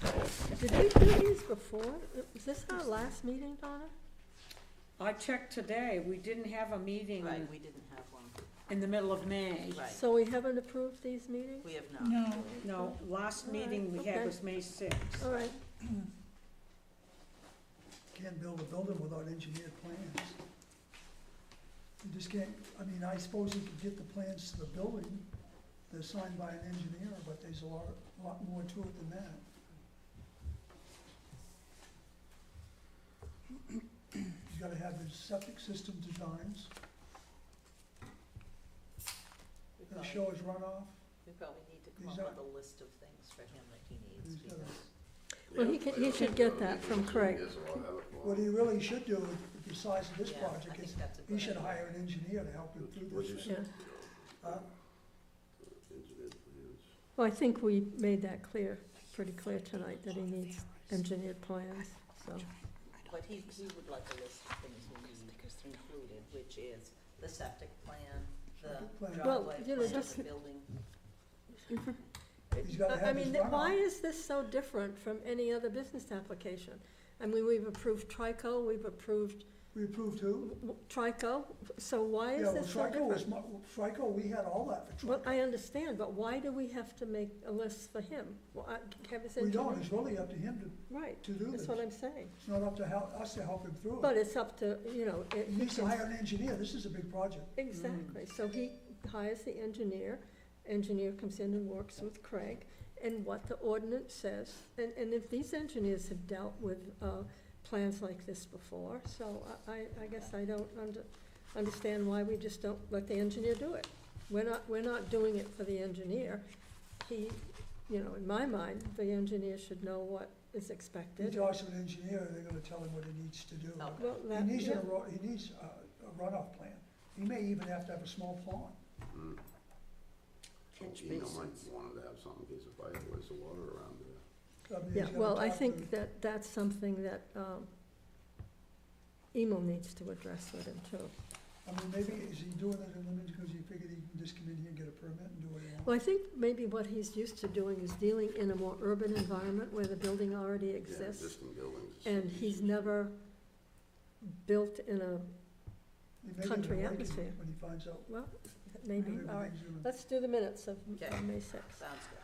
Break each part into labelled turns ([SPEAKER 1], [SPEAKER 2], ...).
[SPEAKER 1] Did we do these before? Was this our last meeting, Donna?
[SPEAKER 2] I checked today, we didn't have a meeting
[SPEAKER 3] Right, we didn't have one,
[SPEAKER 2] in the middle of May.
[SPEAKER 3] right,
[SPEAKER 1] So we haven't approved these meetings?
[SPEAKER 3] we have not.
[SPEAKER 4] No,
[SPEAKER 2] No, last
[SPEAKER 1] All
[SPEAKER 2] meeting
[SPEAKER 1] right,
[SPEAKER 2] we had
[SPEAKER 1] okay. Oh.
[SPEAKER 2] was May sixth.
[SPEAKER 1] All right,
[SPEAKER 4] can't build a building without engineered plans. You just can't, I mean, I suppose you could get the plans to the building, they're signed by an engineer, but there's a lot, lot more to it than that. You gotta have the septic system designs,
[SPEAKER 3] We
[SPEAKER 4] that
[SPEAKER 3] probably-
[SPEAKER 4] shows runoff.
[SPEAKER 3] We probably need to come
[SPEAKER 4] These
[SPEAKER 3] up with
[SPEAKER 4] are-
[SPEAKER 3] a list of things for him that he needs,
[SPEAKER 4] These are-
[SPEAKER 3] because
[SPEAKER 1] Well, he could- he should get that from Craig.
[SPEAKER 4] What he really should do, with the size of this
[SPEAKER 3] Yeah, I
[SPEAKER 4] project,
[SPEAKER 3] think
[SPEAKER 4] is
[SPEAKER 3] that's a
[SPEAKER 4] he
[SPEAKER 3] good
[SPEAKER 4] should
[SPEAKER 3] idea.
[SPEAKER 4] hire an engineer to help him through
[SPEAKER 5] What'd you
[SPEAKER 4] this.
[SPEAKER 5] say?
[SPEAKER 1] yeah.
[SPEAKER 4] Uh,
[SPEAKER 5] Engineered plans.
[SPEAKER 1] Well, I think we made that clear, pretty clear tonight, that he needs engineered plans, so.
[SPEAKER 3] but he, he would like a list of things we need included, which is the septic plan, the
[SPEAKER 4] Septic plan.
[SPEAKER 1] Well,
[SPEAKER 3] driveway
[SPEAKER 1] you know,
[SPEAKER 3] plan,
[SPEAKER 1] just-
[SPEAKER 3] the building.
[SPEAKER 4] He's gotta
[SPEAKER 1] Uh, I-
[SPEAKER 4] have his
[SPEAKER 1] I mean, why
[SPEAKER 4] runoff.
[SPEAKER 1] is this so different from any other business application? I mean, we've approved Trico, we've approved
[SPEAKER 4] We approved who?
[SPEAKER 1] Trico, so why
[SPEAKER 4] Yeah,
[SPEAKER 1] is
[SPEAKER 4] well,
[SPEAKER 1] this so
[SPEAKER 4] Trico was,
[SPEAKER 1] different?
[SPEAKER 4] mu- Trico, we had all that for
[SPEAKER 1] Well,
[SPEAKER 4] Trico.
[SPEAKER 1] I understand, but why do we have to make a list for him? Well, I- Have his
[SPEAKER 4] We don't,
[SPEAKER 1] engineer-
[SPEAKER 4] it's really up to him to,
[SPEAKER 1] Right,
[SPEAKER 4] to do
[SPEAKER 1] that's
[SPEAKER 4] this.
[SPEAKER 1] what I'm saying.
[SPEAKER 4] It's not up to hel- us to help him through it.
[SPEAKER 1] But it's up to, you know, it-
[SPEAKER 4] He needs to hire an engineer, this is a big project.
[SPEAKER 1] exactly. So he hires the engineer, engineer comes in and works with Craig, and what the ordinance says. And, and if these engineers have dealt with, uh, plans like this before, so I, I- I guess I don't under, understand why we just don't let the engineer do it. We're not, we're not doing it for the engineer. He, you know, in my mind, the engineer should know what is
[SPEAKER 4] He
[SPEAKER 1] expected.
[SPEAKER 4] talks to an engineer, they're gonna tell him what he needs to do.
[SPEAKER 3] Okay.
[SPEAKER 1] Well,
[SPEAKER 4] He
[SPEAKER 1] that-
[SPEAKER 4] needs
[SPEAKER 1] yeah.
[SPEAKER 4] a, ro- he needs a a runoff plan. He may even have to have a small pond.
[SPEAKER 2] Catch
[SPEAKER 5] Mm. Oh, You know, might
[SPEAKER 2] basins.
[SPEAKER 5] wanted to have something, in case of fire, waste of water around there.
[SPEAKER 4] I mean, he's
[SPEAKER 1] Yeah,
[SPEAKER 4] gotta
[SPEAKER 1] well, I
[SPEAKER 4] talk
[SPEAKER 1] think
[SPEAKER 4] to-
[SPEAKER 1] that that's something that um, Emil needs to address with him too.
[SPEAKER 4] I mean, maybe, is he doing it in limits because he figured he can just come in here and get a permit and do what he wants?
[SPEAKER 1] Well, I think maybe what he's used to doing is dealing in a more urban environment where the building already
[SPEAKER 5] Yeah,
[SPEAKER 1] exists.
[SPEAKER 5] Existing buildings. is
[SPEAKER 1] And he's never built in a,
[SPEAKER 4] He may be
[SPEAKER 1] country
[SPEAKER 4] awakened
[SPEAKER 1] atmosphere.
[SPEAKER 4] When he finds out.
[SPEAKER 1] well, maybe, all right.
[SPEAKER 4] everything's gonna-
[SPEAKER 1] Let's do the minutes of of
[SPEAKER 3] Okay.
[SPEAKER 1] May 6th.
[SPEAKER 3] Sounds good.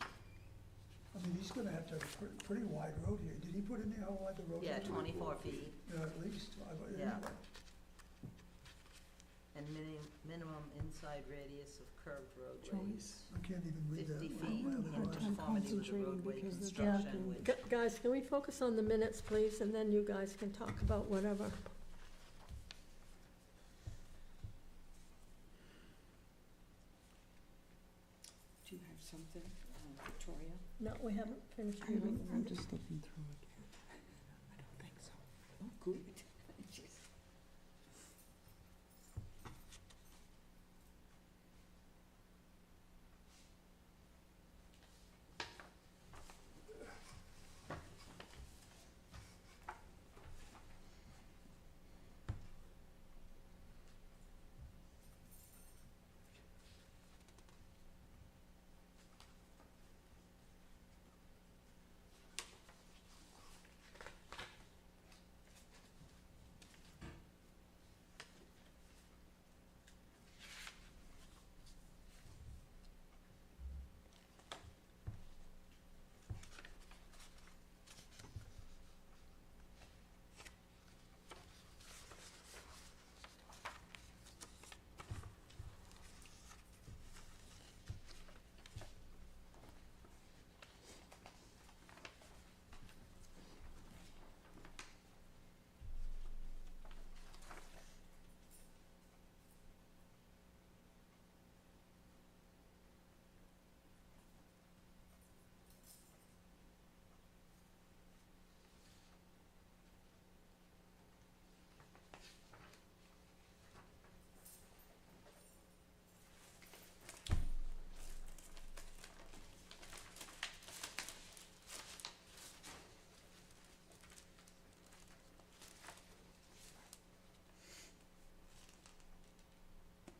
[SPEAKER 4] I mean, he's gonna have to have a pre- pretty wide road here. Did he put in there how wide the road is?
[SPEAKER 3] Yeah, twenty-four feet
[SPEAKER 4] Yeah, at least, I, anyway.
[SPEAKER 3] Yeah. and minimum, minimum inside radius of curved roadways.
[SPEAKER 4] I can't even read that.
[SPEAKER 3] Fifty
[SPEAKER 4] Wow,
[SPEAKER 3] feet
[SPEAKER 4] wow,
[SPEAKER 3] in
[SPEAKER 4] wow, wow.
[SPEAKER 3] conformity with the roadway construction, which.
[SPEAKER 1] Gu- Guys, can we focus on the minutes, please, and then you guys can talk about whatever.
[SPEAKER 6] Do you have something, uh, Victoria?
[SPEAKER 1] No, we haven't finished
[SPEAKER 6] I don't, I'm
[SPEAKER 1] reading.
[SPEAKER 6] just looking through it. I don't think so. Oh, good.